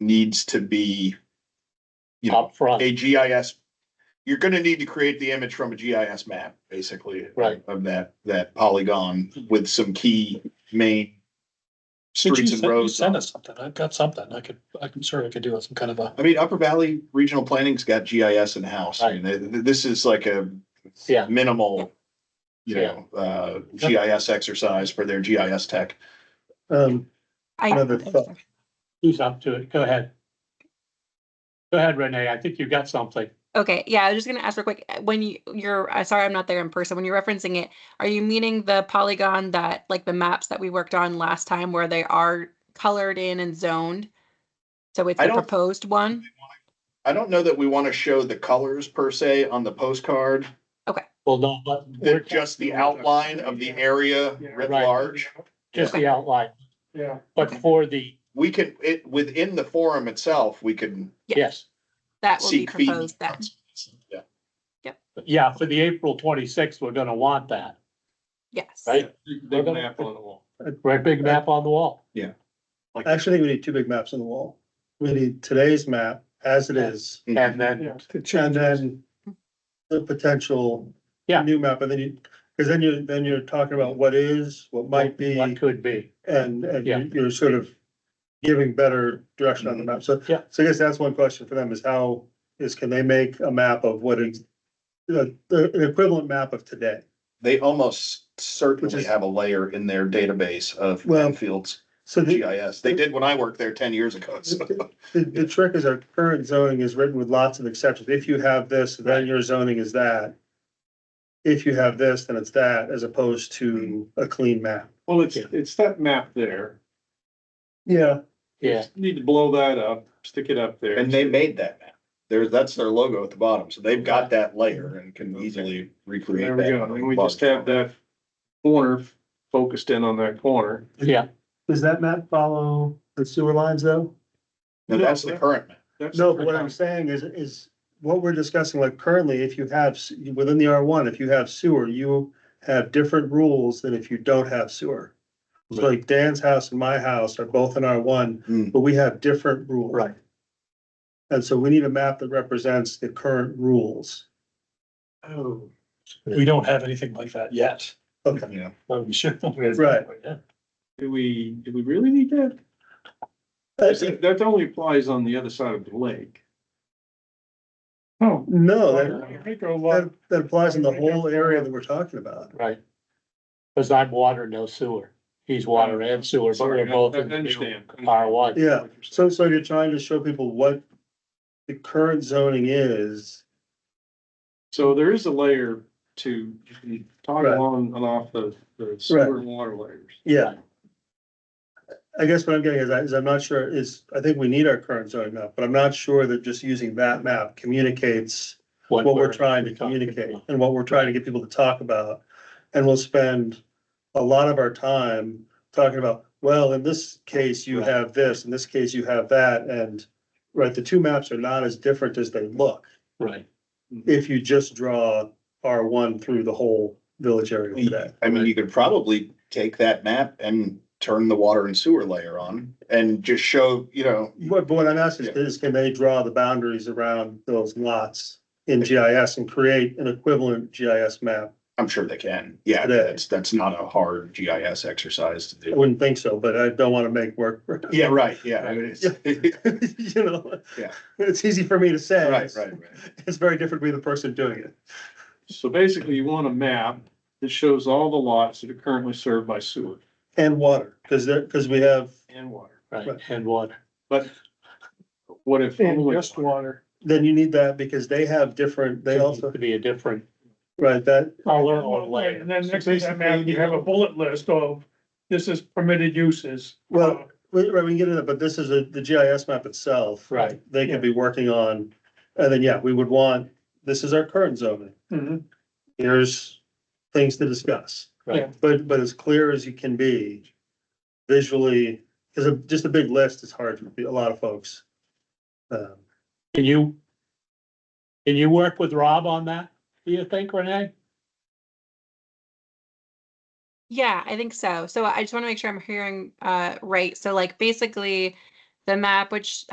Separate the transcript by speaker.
Speaker 1: needs to be, you know,
Speaker 2: up front.
Speaker 1: a GIS. You're gonna need to create the image from a GIS map, basically.
Speaker 2: Right.
Speaker 1: Of that, that polygon with some key main
Speaker 2: Did you
Speaker 1: streets and
Speaker 2: send- you
Speaker 1: roads.
Speaker 2: Send us something. I've got something. I could, I'm sure I could do some kind of a,
Speaker 1: I mean, Upper Valley Regional Planning's got GIS in-house. I mean, th- th- this is like a
Speaker 2: yeah,
Speaker 1: minimal, you know, uh, GIS exercise for their GIS tech.
Speaker 3: Um, Another thought.
Speaker 4: I,
Speaker 2: who's up to it? Go ahead. Go ahead, Renee. I think you've got something.
Speaker 4: okay, yeah, I was just gonna ask real quick, uh, when you, you're, uh, sorry, I'm not there in person, when you're referencing it, are you meaning the polygon that, like the maps that we worked on last time where they are colored in and zoned? So it's
Speaker 1: I
Speaker 4: the
Speaker 1: don't-
Speaker 4: proposed one?
Speaker 1: I don't know that we want to show the colors per se on the postcard,
Speaker 2: Well, no, but. we're
Speaker 1: that just the outline of the area writ
Speaker 2: Right.
Speaker 1: large.
Speaker 2: Just the outline,
Speaker 3: yeah,
Speaker 2: but for the,
Speaker 1: We can, it, within the forum itself, we can
Speaker 4: Yeah.
Speaker 2: yes,
Speaker 4: That will be
Speaker 1: seek feedback.
Speaker 4: proposed then.
Speaker 1: Yeah,
Speaker 2: yeah, for the April twenty-sixth, we're gonna want that,
Speaker 4: Yes.
Speaker 2: right? They're
Speaker 5: Big
Speaker 2: gonna-
Speaker 5: map on the wall.
Speaker 2: Right, big map on the wall.
Speaker 3: I actually think we need two big maps on the wall. We need today's map as it is,
Speaker 2: And then,
Speaker 3: and then the potential
Speaker 2: Yeah.
Speaker 3: new map, and then you, because then you, then you're talking about what is, what might be,
Speaker 2: What could be.
Speaker 3: and, and
Speaker 2: Yeah.
Speaker 3: you- you're sort of giving better direction on the map. So,
Speaker 2: Mm-hmm. Yeah.
Speaker 3: so I guess that's one question for them is how, is can they make a map of what is the, the an equivalent map of today?
Speaker 1: They almost
Speaker 3: Which
Speaker 1: certainly
Speaker 3: is-
Speaker 1: have a layer in their database of
Speaker 3: Well-
Speaker 1: Enfield's
Speaker 3: So the,
Speaker 1: GIS. They did when I worked there ten years ago. so-
Speaker 3: The, the- the trick is our current zoning is written with lots of exceptions. If you have this, then your zoning is that. If you have this, then it's that, as opposed to a clean map.
Speaker 5: Well, it's,
Speaker 2: Yeah.
Speaker 5: it's that map there.
Speaker 3: Yeah.
Speaker 2: Yeah,
Speaker 5: You Need to blow that up, stick it up there.
Speaker 1: And they made that map. There's, that's their logo at the bottom. So they've got that layer and can easily recreate
Speaker 5: There
Speaker 1: that.
Speaker 5: we go. And we just have that corner focused in on that corner.
Speaker 2: yeah,
Speaker 3: Does that map follow the sewer lines though?
Speaker 1: No, that's the current map.
Speaker 5: That's-
Speaker 3: No, but what I'm saying is, is what we're discussing, like currently, if you have, s- within the R one, if you have sewer, you have different rules than if you don't have sewer. So like Dan's house and my house are both in R one,
Speaker 1: Hmm.
Speaker 3: but we have different rules.
Speaker 2: Right.
Speaker 3: And so we need a map that represents the current rules.
Speaker 5: Oh.
Speaker 2: we don't have anything like that yet,
Speaker 3: Okay,
Speaker 1: Yeah.
Speaker 2: but we should.
Speaker 3: Right.
Speaker 5: Do we, do we really need that?
Speaker 3: Uh,
Speaker 5: That only applies on the other side of the lake.
Speaker 3: no, that,
Speaker 5: Well,
Speaker 3: that, that applies in the whole area that we're talking about.
Speaker 2: Right. Cause I'm water, no sewer. He's water and sewer, but we're
Speaker 5: Sorry, I-
Speaker 2: both
Speaker 5: I
Speaker 2: in
Speaker 5: understand.
Speaker 2: R one.
Speaker 3: Yeah, so, so you're trying to show people what the current zoning is.
Speaker 5: So there is a layer to
Speaker 3: Right.
Speaker 5: toggle on and off the, the sewer and water layers.
Speaker 3: Yeah. I guess what I'm getting is, I- is I'm not sure, is, I think we need our current zoning map, but I'm not sure that just using that map communicates what we're trying to communicate and what we're trying to get people to talk about. And we'll spend a lot of our time talking about, well, in this case, you
Speaker 2: Right.
Speaker 3: have this, in this case, you have that, and right, the two maps are not as different as they look
Speaker 2: Right,
Speaker 3: if you just draw R one through the whole village area today.
Speaker 1: I mean, you could probably take that map and turn the water and sewer layer on and just show, you know,
Speaker 3: But, but what I'm asking is, is can they draw the boundaries around those lots in GIS and create an equivalent GIS map?
Speaker 1: I'm sure they can. Yeah,
Speaker 3: Today.
Speaker 1: that's, that's not a hard GIS exercise to
Speaker 3: I
Speaker 1: do.
Speaker 3: wouldn't think so, but I don't want to make work. for-
Speaker 1: Yeah, right, yeah. I mean, it's-
Speaker 3: You know?
Speaker 1: Yeah.
Speaker 3: It's easy for me to say.
Speaker 1: Right, right, right.
Speaker 3: It's very different to be the person doing it.
Speaker 5: So basically you want a map that shows all the lots that are currently served by sewer
Speaker 3: And water, because there, because we have,
Speaker 5: and water.
Speaker 2: right,
Speaker 3: Right.
Speaker 2: and water.
Speaker 5: But what if? only
Speaker 2: water.
Speaker 3: then you need that because they have different, they also,
Speaker 2: Could be a different
Speaker 3: right, that,
Speaker 2: color or layer.
Speaker 6: And then next to that map, you have a bullet list of, this is permitted uses.
Speaker 3: well, we, right, we can get into that, but this is a- the GIS map itself.
Speaker 2: Right.
Speaker 3: They can be working on, and then, yeah, we would want, this is our current zoning.
Speaker 6: Mhm.
Speaker 3: here's things to discuss.
Speaker 2: Right.
Speaker 3: But, but as clear as you can be visually, because just a big list is hard for a lot of folks. Um,
Speaker 2: Can you? Can you work with Rob on that, do you think, Renee?
Speaker 4: Yeah, I think so. So I just want to make sure I'm hearing uh right. So like basically the map which